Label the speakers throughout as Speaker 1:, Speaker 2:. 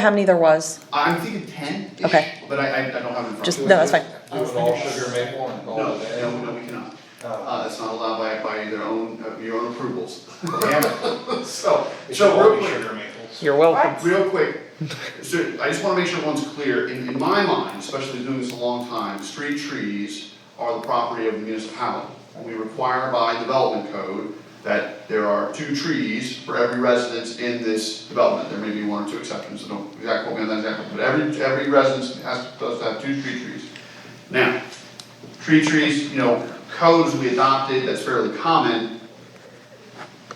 Speaker 1: How many there was?
Speaker 2: I'm thinking ten.
Speaker 1: Okay.
Speaker 2: But I, I, I don't have it in front of me.
Speaker 1: Just, no, that's fine.
Speaker 3: Do it all sugar maple and all
Speaker 2: No,
Speaker 3: of that.
Speaker 2: no, no, we cannot.
Speaker 3: Oh.
Speaker 2: Uh, it's not allowed by, by their own, uh, your own approvals.
Speaker 3: Damn it.
Speaker 2: So,
Speaker 3: It should
Speaker 2: so
Speaker 3: all
Speaker 2: real
Speaker 3: be
Speaker 2: quick,
Speaker 3: sugar maples.
Speaker 1: You're welcome.
Speaker 2: real quick, so I just wanna make sure one's clear, in, in my mind, especially doing this a long time, street trees are the property of the municipality. We require by development code that there are two trees for every residence in this development, there may be one or two exceptions, so don't exactly quote me on that example, but every, every residence has, does have two tree trees. Now, tree trees, you know, codes we adopted that's fairly common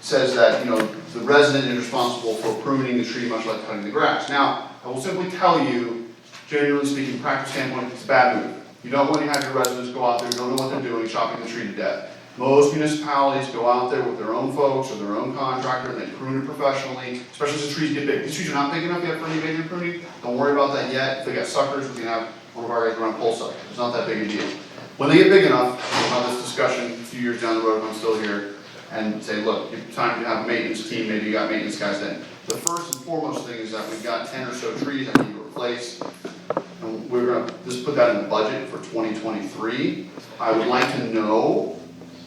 Speaker 2: says that, you know, the resident is responsible for pruning the tree, much like cutting the grass. Now, I will simply tell you, genuinely speaking, practice standpoint, it's a bad move. You don't want to have your residents go out there, you don't know what they're doing, chopping the tree to death. Most municipalities go out there with their own folks or their own contractor, and they prune it professionally, especially as the trees get big. These trees are not big enough yet for any major pruning, don't worry about that yet, if they got suckers, we can have one of our guys run a pole sucker, it's not that big a deal. When they get big enough, we'll have this discussion a few years down the road, if I'm still here, and say, look, it's time to have a maintenance team, maybe you got maintenance guys then. The first and foremost thing is that we've got ten or so trees that need to replace. And we're gonna, just put that in the budget for twenty twenty-three. I would like to know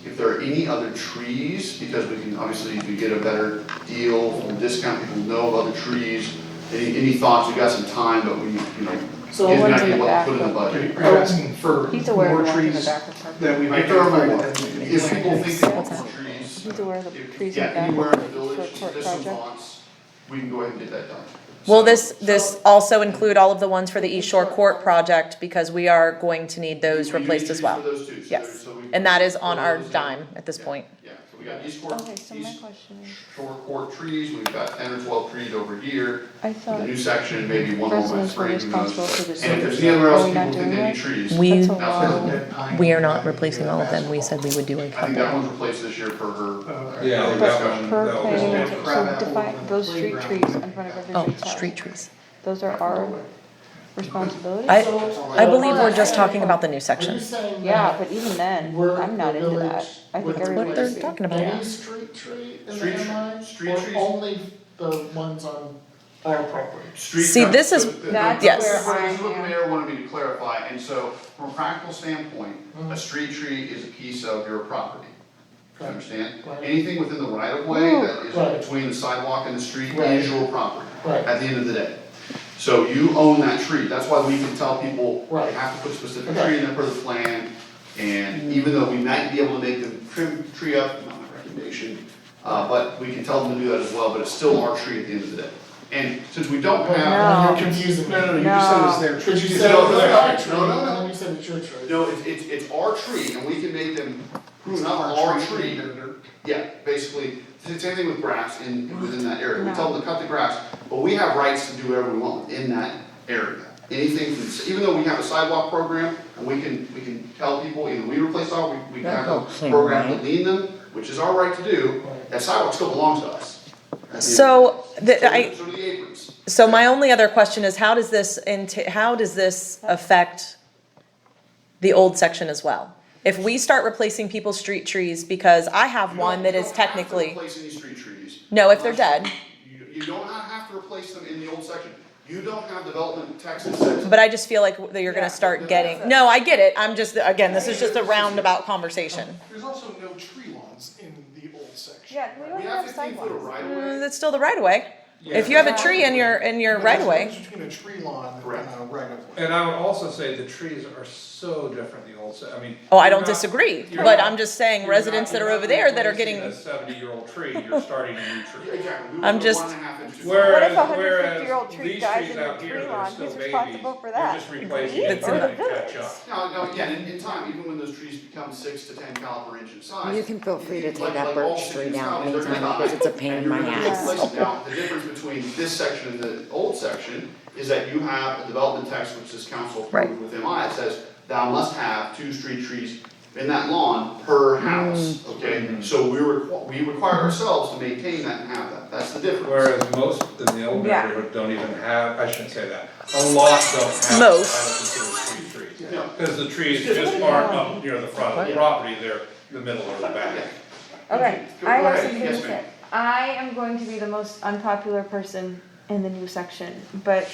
Speaker 2: if there are any other trees, because we can, obviously, if we get a better deal from discount, people know of other trees. Any, any thoughts, we got some time, but we, you know, give
Speaker 4: So the
Speaker 2: an
Speaker 4: ones in
Speaker 2: idea
Speaker 4: the
Speaker 2: what to put in
Speaker 4: back
Speaker 2: the budget.
Speaker 5: Are you asking for
Speaker 4: He's aware of the
Speaker 5: more
Speaker 4: ones in the
Speaker 5: trees
Speaker 4: back of the park.
Speaker 5: that we might
Speaker 2: If
Speaker 5: get?
Speaker 2: there are more,
Speaker 5: affected than we
Speaker 2: if
Speaker 5: can?
Speaker 2: people think there are more trees,
Speaker 4: He's aware of the
Speaker 2: if,
Speaker 4: trees in
Speaker 2: yeah,
Speaker 4: the back.
Speaker 2: anywhere in the
Speaker 4: for a
Speaker 2: village,
Speaker 4: court
Speaker 2: there's some
Speaker 4: project.
Speaker 2: lots, we can go ahead and get that done.
Speaker 1: Will this, this also include all of the ones for the East Shore Court project? Because we are going to need those
Speaker 2: We need
Speaker 1: replaced as
Speaker 2: trees
Speaker 1: well.
Speaker 2: for those two, so there-
Speaker 1: Yes,
Speaker 2: so we-
Speaker 1: and that is on our
Speaker 2: Yeah,
Speaker 1: dime at this point.
Speaker 2: Yeah, so we got East Court,
Speaker 4: Okay, so my
Speaker 2: East
Speaker 4: question is,
Speaker 2: Shore Court trees, we've got ten or twelve trees over here,
Speaker 4: I
Speaker 2: the
Speaker 4: thought
Speaker 2: new section, maybe one more by
Speaker 4: residents were
Speaker 2: three, who knows?
Speaker 4: responsible for
Speaker 2: And
Speaker 4: the
Speaker 2: if
Speaker 4: sewers.
Speaker 2: there's anywhere
Speaker 4: Are
Speaker 2: else
Speaker 4: we
Speaker 2: people
Speaker 4: not
Speaker 2: think
Speaker 4: doing
Speaker 2: they need
Speaker 4: that?
Speaker 2: trees,
Speaker 1: We,
Speaker 4: That's a lot.
Speaker 5: Dead pine
Speaker 1: we are not
Speaker 5: pine,
Speaker 1: replacing all of them. We said we would do a
Speaker 2: I think that
Speaker 1: couple.
Speaker 2: one's replaced this year for her.
Speaker 5: Okay.
Speaker 3: Yeah,
Speaker 4: But
Speaker 3: we got one.
Speaker 4: per
Speaker 3: That was
Speaker 4: planning and
Speaker 3: one.
Speaker 4: zoning,
Speaker 5: Crab
Speaker 4: so define
Speaker 5: apple
Speaker 4: those street
Speaker 5: playground.
Speaker 4: trees in front of
Speaker 1: Oh,
Speaker 4: everybody's house.
Speaker 1: street trees.
Speaker 4: Those are our responsibilities?
Speaker 1: I, I believe we're just talking about the new
Speaker 6: Are you
Speaker 1: section.
Speaker 6: saying
Speaker 4: Yeah,
Speaker 6: that
Speaker 4: but even then,
Speaker 6: we're
Speaker 4: I'm not
Speaker 6: the
Speaker 4: into
Speaker 6: village
Speaker 4: that. I
Speaker 6: with
Speaker 4: think
Speaker 6: the
Speaker 1: What they're
Speaker 4: everybody's.
Speaker 1: talking about.
Speaker 6: any street tree in
Speaker 2: Street
Speaker 6: the
Speaker 2: tr-
Speaker 6: MI?
Speaker 2: street
Speaker 6: Or
Speaker 2: trees.
Speaker 6: only the ones on our property?
Speaker 2: Street
Speaker 1: See,
Speaker 2: cut.
Speaker 1: this is-
Speaker 2: So the-
Speaker 4: That's
Speaker 1: Yes.
Speaker 4: where I
Speaker 2: This is what the
Speaker 4: am.
Speaker 2: mayor wanted me to clarify, and so from a practical standpoint, a street tree is a piece of your property. You understand?
Speaker 6: Mm-hmm. Right.
Speaker 2: Anything within the right of way that
Speaker 6: Right.
Speaker 2: is between the sidewalk and the street
Speaker 6: Right.
Speaker 2: is your property
Speaker 6: Right.
Speaker 2: at the end of the day. So you own that tree, that's why we can tell people, you
Speaker 6: Right.
Speaker 2: have to put a specific
Speaker 6: Okay.
Speaker 2: tree in there per the plan. And even though we might be able to make the trim tree up, not my recommendation, uh, but we can tell them to do that as well, but it's still our tree at the end of the day. And since we don't have.
Speaker 4: No.
Speaker 6: You're confusing me.
Speaker 5: No, no, no, you just said it's their
Speaker 6: Because
Speaker 5: trees.
Speaker 6: you said it
Speaker 2: No,
Speaker 6: was
Speaker 2: no, no,
Speaker 6: our tree,
Speaker 2: no, no, no.
Speaker 6: and then you said it's your tree.
Speaker 2: No, it's, it's, it's our tree and we can make them prune up our
Speaker 5: Our
Speaker 2: tree.
Speaker 5: vendor.
Speaker 2: Yeah, basically, it's the same thing with grass in, within that area, we
Speaker 4: No.
Speaker 2: tell them to cut the grass, but we have rights to do whatever we want in that area. Anything, from- even though we have a sidewalk program, and we can, we can tell people, either we replace all, we, we can have a program to lean them, which is our right to do, that sidewalk still belongs to us.
Speaker 1: So, the,
Speaker 2: So do-
Speaker 1: I,
Speaker 2: So do the aprons.
Speaker 1: so my only other question is how does this, int- how does this affect the old section as well? If we start replacing people's street trees, because I have
Speaker 2: You
Speaker 1: one
Speaker 2: don't-
Speaker 1: that is
Speaker 2: You
Speaker 1: technically,
Speaker 2: don't have to replace any street trees.
Speaker 1: No, if they're dead.
Speaker 2: You, you don't ha- have to replace them in the old section. You don't have development tax incentives.
Speaker 1: but I just feel like that you're gonna
Speaker 2: Yeah,
Speaker 1: start
Speaker 2: that's
Speaker 1: getting, no, I get it, I'm just, again, this is just a roundabout conversation.
Speaker 5: There's also no tree lawns in the old section.
Speaker 4: Yeah, we
Speaker 2: We have fifteen foot of right of
Speaker 1: Mm,
Speaker 2: way.
Speaker 1: That's still the right of way. If you have a tree in your, in your
Speaker 5: But
Speaker 1: right
Speaker 5: there's
Speaker 1: of
Speaker 5: a
Speaker 1: way,
Speaker 5: difference Between a tree lawn
Speaker 2: Correct.
Speaker 5: and a right of way.
Speaker 3: And I would also say the trees are so different, the old, se- I mean.
Speaker 1: oh, I
Speaker 3: you're
Speaker 1: don't
Speaker 3: not-
Speaker 1: disagree,
Speaker 3: you're
Speaker 1: but
Speaker 3: not-
Speaker 1: I'm just saying
Speaker 3: you're
Speaker 1: residents
Speaker 3: not-
Speaker 1: that are
Speaker 3: you're not
Speaker 1: over there that are
Speaker 3: replacing
Speaker 1: getting,
Speaker 3: A seventy-year-old tree, you're starting a new tree.
Speaker 2: Exactly.
Speaker 1: I'm just-
Speaker 4: What if
Speaker 3: Whereas,
Speaker 4: a hundred
Speaker 3: whereas
Speaker 4: fifty year old tree
Speaker 3: these
Speaker 4: dies
Speaker 3: trees
Speaker 4: in a
Speaker 3: out here,
Speaker 4: tree
Speaker 3: they're
Speaker 4: lawn,
Speaker 3: still
Speaker 4: who's
Speaker 3: babies,
Speaker 4: responsible for
Speaker 3: you're
Speaker 4: that?
Speaker 3: just replacing
Speaker 1: It's
Speaker 3: it
Speaker 1: in
Speaker 3: until
Speaker 1: the
Speaker 3: they catch up.
Speaker 2: Now, now, again, in, in time, even when those trees become six to ten caliber inch in size.
Speaker 7: You can feel free to
Speaker 2: like-
Speaker 7: take that
Speaker 2: like all
Speaker 7: birch tree
Speaker 2: cities now,
Speaker 7: down
Speaker 2: they're
Speaker 7: anytime
Speaker 2: gonna
Speaker 7: because
Speaker 2: die.
Speaker 7: it's a pain
Speaker 2: And
Speaker 7: in my
Speaker 2: you're gonna
Speaker 7: ass.
Speaker 2: replace it. Now, the difference between this section and the old section is that you have a development text which this council approved
Speaker 1: Right.
Speaker 2: with MI, it says, thou must have two street trees in that lawn per house,
Speaker 7: Mm.
Speaker 2: okay? So we requ- we require ourselves to maintain that and have that, that's the difference.
Speaker 3: Whereas most in the old
Speaker 4: Yeah.
Speaker 3: neighborhood don't even have, I shouldn't say that, a lot don't have, I would consider street trees.
Speaker 2: Yeah.
Speaker 3: Cause the trees just aren't up near the front of the property, they're the middle or the back.
Speaker 4: Okay,
Speaker 2: Go
Speaker 4: I have
Speaker 2: ahead.
Speaker 4: something
Speaker 2: Yes,
Speaker 4: to
Speaker 2: ma'am.
Speaker 4: say. I am going to be the most unpopular person in the new section, but